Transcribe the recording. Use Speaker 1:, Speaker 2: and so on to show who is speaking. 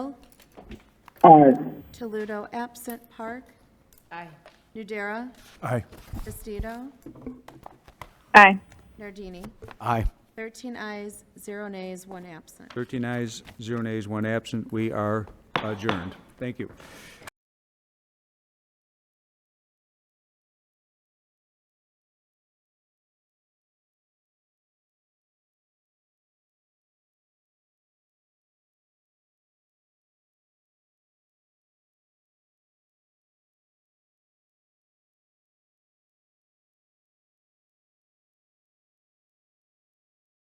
Speaker 1: Aye.
Speaker 2: Toludo absent, Park.
Speaker 3: Aye.
Speaker 2: Nudera,
Speaker 4: Aye.
Speaker 2: Estido,
Speaker 5: Aye.
Speaker 2: Nardini.
Speaker 4: Aye.
Speaker 2: 13 ayes, 0 nays, 1 absent.
Speaker 6: 13 ayes, 0 nays, 1 absent. We are adjourned. Thank you.